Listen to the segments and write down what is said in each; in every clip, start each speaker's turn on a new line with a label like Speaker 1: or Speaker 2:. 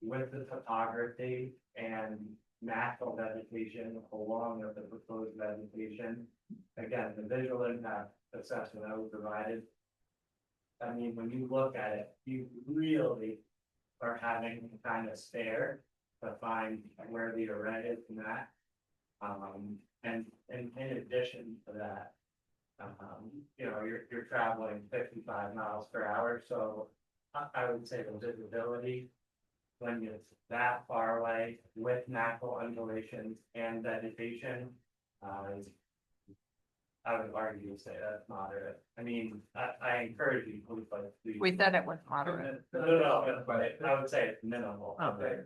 Speaker 1: with the topography and natural vegetation along with the proposed vegetation. Again, the visual impact assessment I was provided. I mean, when you look at it, you really are having to kind of stare to find where the array is and that. Um, and, and in addition to that, um, you know, you're, you're traveling fifty-five miles per hour, so I, I would say the visibility when it's that far away with natural undulations and vegetation, uh, is- I would argue to say that's moderate. I mean, I, I encourage you, please, like. please-
Speaker 2: We said it was
Speaker 1: No,
Speaker 2: moderate.
Speaker 1: no, no, but I would say it's minimal.
Speaker 2: Oh,
Speaker 3: Okay.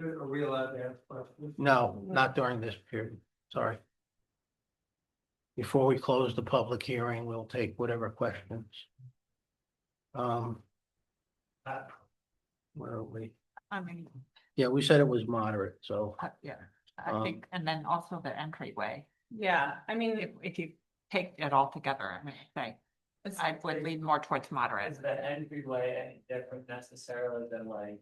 Speaker 1: Are we allowed to ask questions?
Speaker 3: No, not during this period, sorry. Before we close the public hearing, we'll take whatever questions. Um,
Speaker 1: Uh,
Speaker 3: where are we?
Speaker 2: I mean,
Speaker 3: Yeah, we said it was moderate, so,
Speaker 2: uh, yeah, I
Speaker 3: Um,
Speaker 2: think, and then also the entryway.
Speaker 4: Yeah, I
Speaker 2: If,
Speaker 4: mean.
Speaker 2: if you take it all together, I mean, I,
Speaker 4: it's-
Speaker 2: I would lean more towards moderate.
Speaker 1: uh, Is the entryway any different necessarily than like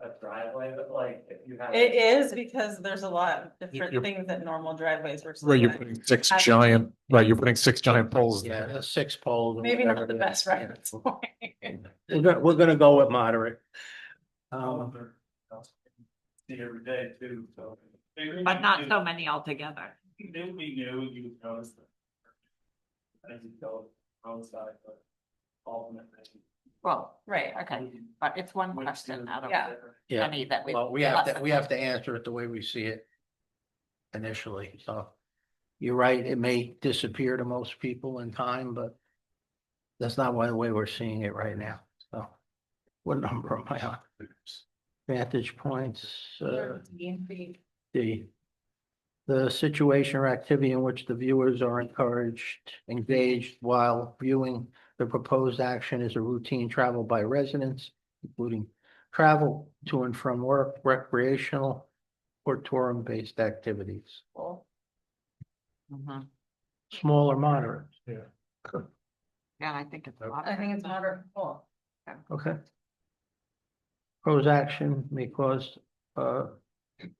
Speaker 1: a driveway, but like if you have.
Speaker 4: It is because there's a lot of different
Speaker 5: you're-
Speaker 4: things that normal driveways were.
Speaker 5: Right, you're
Speaker 4: set.
Speaker 5: putting six
Speaker 4: I-
Speaker 5: giant, right, you're putting six giant poles.
Speaker 3: yeah,
Speaker 5: there.
Speaker 3: that's six polls. or
Speaker 4: Maybe not
Speaker 3: whatever
Speaker 4: the
Speaker 3: it is.
Speaker 4: best reference
Speaker 3: Yeah.
Speaker 4: point.
Speaker 3: We're gonna, we're gonna go with moderate. Um,
Speaker 1: See every day too, so.
Speaker 2: But not so many altogether.
Speaker 1: They would be new, you would notice them. As you go outside, but ultimately.
Speaker 2: Well,
Speaker 4: Right,
Speaker 2: okay, but it's one question out of
Speaker 4: Yeah.
Speaker 3: yeah,
Speaker 2: any that we.
Speaker 3: well, we have to,
Speaker 2: discussed.
Speaker 3: we have to answer it the way we see it initially, so. You're right, it may disappear to most people in time, but that's not why the way we're seeing it right now, so. What number am I on? Vantage points, uh, D. The situation or activity in which the viewers are encouraged, engaged while viewing the proposed action is a routine travel by residents, including travel to and from work, recreational or tourism-based activities,
Speaker 2: Mhm.
Speaker 3: small or moderate.
Speaker 2: Yeah, I think it's.
Speaker 4: I think it's moderate. Cool.
Speaker 3: Okay. Proposed action may cause, uh,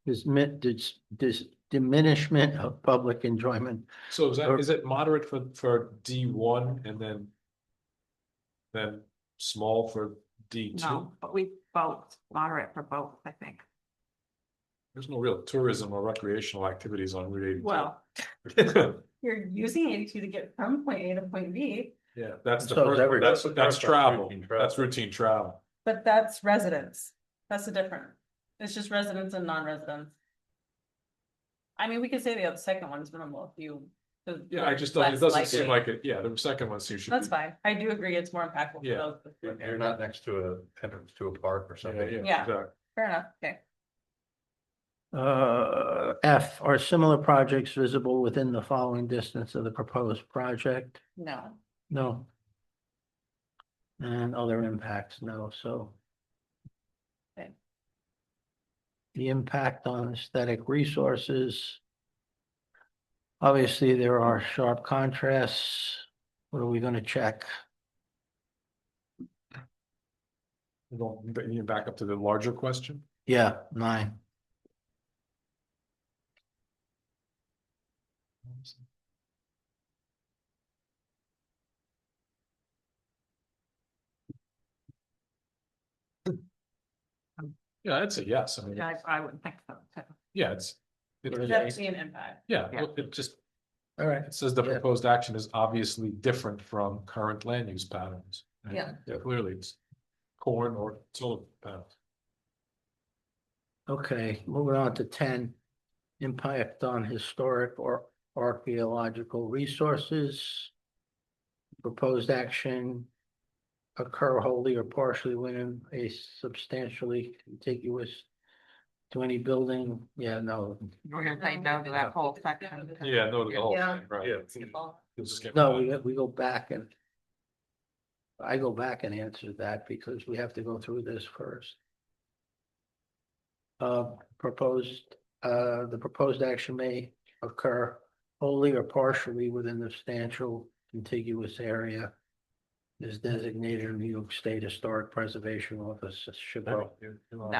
Speaker 3: dismi- dis- dis- diminishment of public enjoyment
Speaker 5: So is that,
Speaker 3: Or-
Speaker 5: is it moderate for, for D one and then? Then small for D two?
Speaker 2: No, but we both, moderate for both, I think.
Speaker 5: There's no real tourism or recreational activities on Route
Speaker 2: Well,
Speaker 5: eighty two.
Speaker 4: You're using eighty-two to get from point A to point B,
Speaker 5: Yeah, that's the
Speaker 3: So is
Speaker 5: first,
Speaker 3: every-
Speaker 5: one. that's,
Speaker 3: that's-
Speaker 5: that's
Speaker 3: that's
Speaker 5: travel,
Speaker 3: routine travel.
Speaker 5: that's routine travel.
Speaker 4: but that's residents. That's the difference. It's just residents and non-residents. I mean, we could say the other second one is minimal if you. the-
Speaker 5: Yeah, I just, don't- it
Speaker 4: less
Speaker 5: doesn't seem
Speaker 4: likely.
Speaker 5: like it, yeah, the second one seems. should be-
Speaker 4: That's fine. I do agree. It's more impactful for
Speaker 5: Yeah.
Speaker 4: those. with
Speaker 5: You're-
Speaker 4: wheelchairs.
Speaker 6: You're not next to a entrance to a park or
Speaker 5: Yeah,
Speaker 6: something.
Speaker 4: Yeah.
Speaker 5: exactly.
Speaker 4: Fair enough. Okay.
Speaker 3: Uh, F, are similar projects visible within the following distance of the proposed project?
Speaker 4: No.
Speaker 3: No. And other impacts, no, so.
Speaker 4: Okay.
Speaker 3: The impact on aesthetic resources. Obviously, there are sharp contrasts. What are we gonna check?
Speaker 5: You don't- but you back up to the larger question?
Speaker 3: Yeah, nine.
Speaker 5: Yeah, I'd say yes, I mean,
Speaker 2: I, I would think so too.
Speaker 5: yeah, it's. it-
Speaker 3: What is it?
Speaker 4: That's an impact.
Speaker 5: Yeah,
Speaker 2: Yeah.
Speaker 5: look, it just,
Speaker 3: All right.
Speaker 5: it says the
Speaker 3: Yeah.
Speaker 5: proposed action is obviously different from current land use patterns. And
Speaker 4: Yeah.
Speaker 6: Yeah.
Speaker 5: Clearly, it's corn or solar panels.
Speaker 3: Okay, moving on to ten, impact on historic or archaeological resources. Proposed action occur wholly or partially within a substantially contiguous to any building, yeah, no,
Speaker 2: We're gonna say no to that whole section. 'cause-
Speaker 5: Yeah, no, to the whole
Speaker 4: Yeah.
Speaker 5: thing, right? You'll just get
Speaker 3: no,
Speaker 5: rid of
Speaker 3: we, we go back and I go back and answer that because we have to go through this first. Uh, proposed, uh, the proposed action may occur wholly or partially within the substantial contiguous area is designated in New York State Historic Preservation Office, Chabot.
Speaker 5: it.